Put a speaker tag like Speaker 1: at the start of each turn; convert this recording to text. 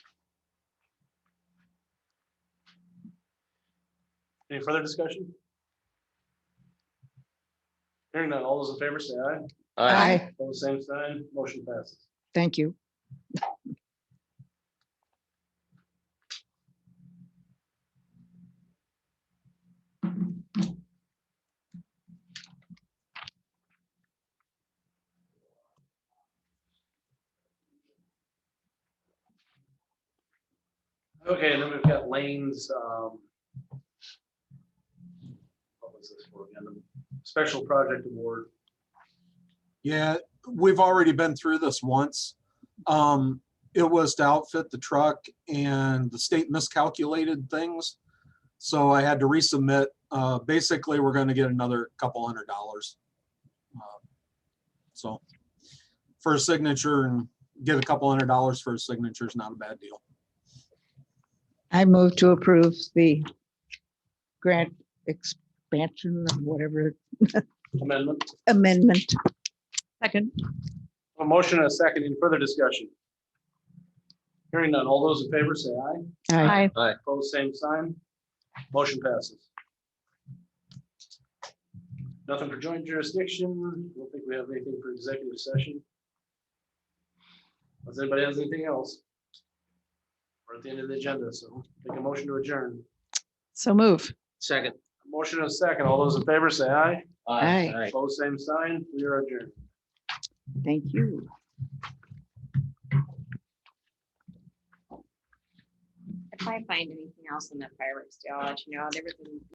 Speaker 1: Any further discussion? Hearing none, all those in favor say aye.
Speaker 2: Aye.
Speaker 1: All the same sign, motion passes.
Speaker 2: Thank you.
Speaker 1: Okay, and then we've got lanes, um. What was this for again? The Special project award.
Speaker 3: Yeah, we've already been through this once. Um, it was to outfit the truck and the state miscalculated things. So I had to resubmit. Uh, basically, we're gonna get another couple hundred dollars. Uh, So for a signature and get a couple hundred dollars for a signature is not a bad deal.
Speaker 2: I move to approve the grant expansion, or whatever
Speaker 1: Amendment,
Speaker 2: amendment. Second.
Speaker 1: a motion and a second, any further discussion? Hearing none, all those in favor say aye.
Speaker 2: Aye.
Speaker 1: Opposed, same sign. Motion passes. Nothing for joint jurisdiction. Don't think we have anything for executive session. Does anybody has anything else? We're at the end of the agenda, so make a motion to adjourn.
Speaker 2: So move.
Speaker 4: Second.
Speaker 1: Motion and a second. All those in favor say aye.
Speaker 2: Aye.
Speaker 4: Aye.
Speaker 1: Opposed, same sign. We are adjourned.
Speaker 2: Thank you.
Speaker 5: If I find anything else in the fireworks deal, I'll let you know. There was a